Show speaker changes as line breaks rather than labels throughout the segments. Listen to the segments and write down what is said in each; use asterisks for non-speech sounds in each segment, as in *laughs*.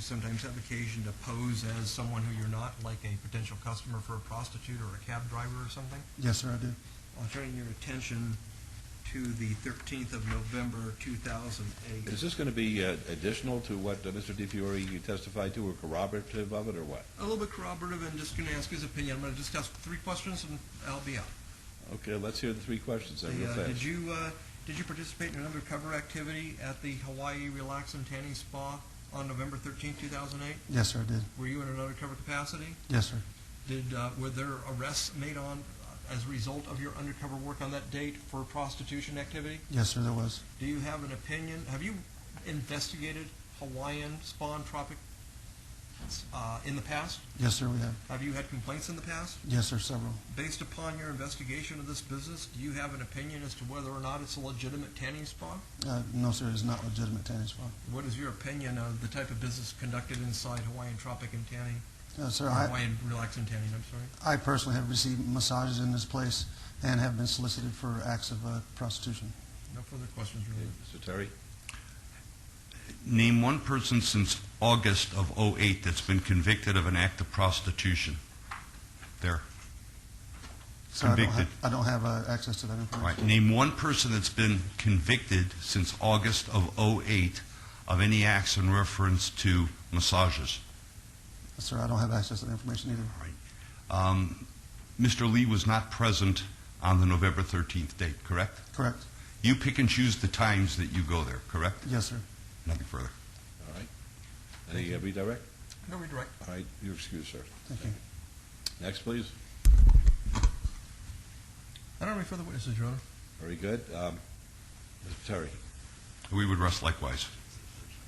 sometimes have occasion to pose as someone who you're not, like a potential customer for a prostitute or a cab driver or something?
Yes, sir, I do.
I'll turn your attention to the 13th of November, 2008.
Is this going to be uh, additional to what uh, Mr. DiFiore testified to or corroborative of it or what?
a little bit corroborative and just going to ask his opinion. I'm going to just ask three questions and I'll be out.
Okay, let's hear the three questions then real
The, uh,
fast.
did you uh, did you participate in an undercover activity at the Hawaii Relax and Tanning Spa on November 13, 2008?
Yes, sir, I did.
Were you in an undercover capacity?
Yes, sir.
Did uh, were there arrests made on uh, as a result of your undercover work on that date for prostitution activity?
Yes, sir, there was.
Do you have an opinion? Have you investigated Hawaiian spa and tropic uh, in the past?
Yes, sir, we have.
Have you had complaints in the past?
Yes, sir, several.
Based upon your investigation of this business, do you have an opinion as to whether or not it's a legitimate tanning spa?
Uh, no, sir, it's not legitimate tanning spa.
What is your opinion of the type of business conducted inside Hawaiian Tropic and Tanning,
Uh, sir,
or
I,
Hawaiian Relax and Tanning, I'm sorry?
I personally have received massages in this place and have been solicited for acts of uh, prostitution.
No further questions,
Okay,
really.
Mr. Terry?
Name one person since August of '08 that's been convicted of an act of prostitution. There.
So I don't,
Convicted.
have, I don't have uh, access to that
All
information.
right. Name one person that's been convicted since August of '08 of any acts in reference to massages.
Sir, I don't have access to that information either.
Um, Mr. Lee was not present on the November 13th date, correct?
Correct.
You pick and choose the times that you go there, correct?
Yes, sir.
Nothing further.
All right. Any uh, redirect?
No redirect.
All right, you're excused, sir.
Thank you.
Next, please.
I don't have any further witnesses, Your Honor.
Very good. Um, Mr. Terry,
We would rest likewise.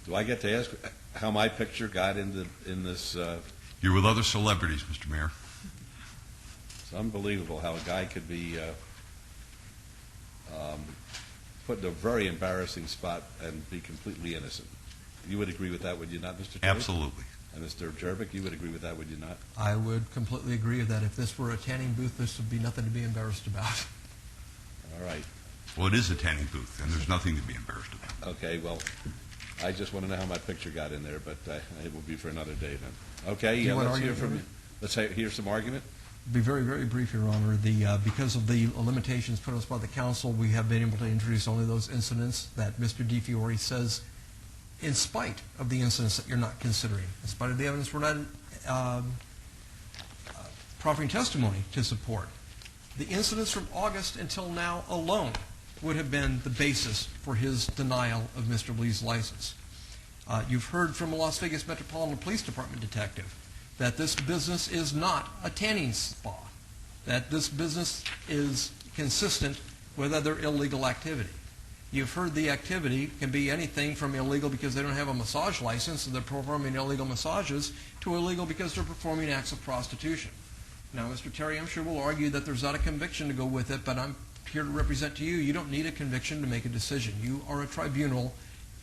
do I get to ask how my picture got into, in this, uh,
You're with other celebrities, Mr. Mayor.
it's unbelievable how a guy could be uh, um, put in a very embarrassing spot and be completely innocent. You would agree with that, would you not, Mr. Terry?
Absolutely.
And Mr. Jervik, you would agree with that, would you not?
I would completely agree that if this were a tanning booth, this would be nothing to be embarrassed about.
All right.
Well, it is a tanning booth, and there's nothing to be embarrassed about.
Okay, well, I just want to know how my picture got in there, but uh, it will be for another day then. Okay,
you
yeah,
want
let's hear
argument,
from,
Jervik?
let's he- hear some argument.
*laughs* Be very, very brief, Your Honor. The, uh, because of the limitations put on us by the council, we have been able to introduce only those incidents that Mr. DiFiore says, in spite of the incidents that you're not considering, in spite of the evidence we're not um, uh, proffering testimony to support. The incidents from August until now alone would have been the basis for his denial of Mr. Lee's license. Uh, you've heard from a Las Vegas Metropolitan Police Department detective that this business is not a tanning spa, that this business is consistent with other illegal activity. You've heard the activity can be anything from illegal because they don't have a massage license and they're performing illegal massages to illegal because they're performing acts of prostitution. Now, Mr. Terry, I'm sure will argue that there's not a conviction to go with it, but I'm here to represent to you, you don't need a conviction to make a decision. You are a tribunal.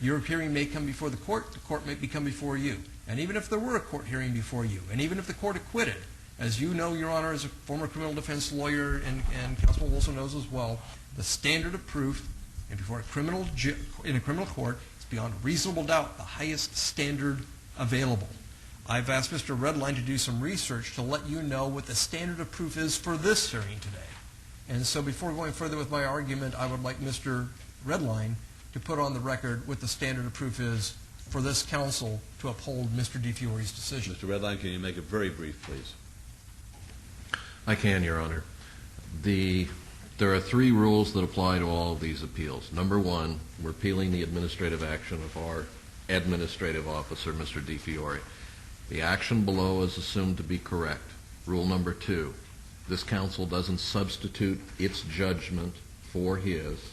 Your hearing may come before the court, the court may come before you. And even if there were a court hearing before you, and even if the court acquitted, as you know, Your Honor, as a former criminal defense lawyer, and, and Councilman Wilson knows as well, the standard of proof and before a criminal ju- in a criminal court is beyond reasonable doubt the highest standard available. I've asked Mr. Redline to do some research to let you know what the standard of proof is for this hearing today. And so before going further with my argument, I would like Mr. Redline to put on the record what the standard of proof is for this council to uphold Mr. DeFiore's decision.
Mr. Redline, can you make it very brief, please?
I can, Your Honor. The, there are three rules that apply to all of these appeals. Number one, we're appealing the administrative action of our administrative officer, Mr. DeFiore. The action below is assumed to be correct. Rule number two, this council doesn't substitute its judgment for his.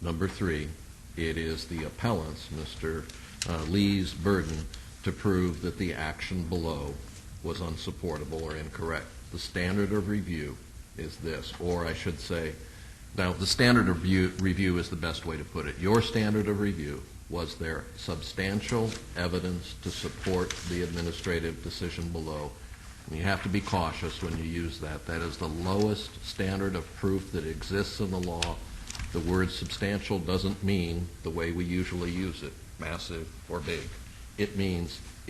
Number three, it is the appellant's, Mr. uh, Lee's, burden to prove that the action below was unsupportable or incorrect the standard of review is this, or I should say, now, the standard of review, review is the best way to put it. Your standard of review, was there substantial evidence to support the administrative decision below? And you have to be cautious when you use that. That is the lowest standard of proof that exists in the law. The word substantial doesn't mean the way we usually use it, massive or big. It means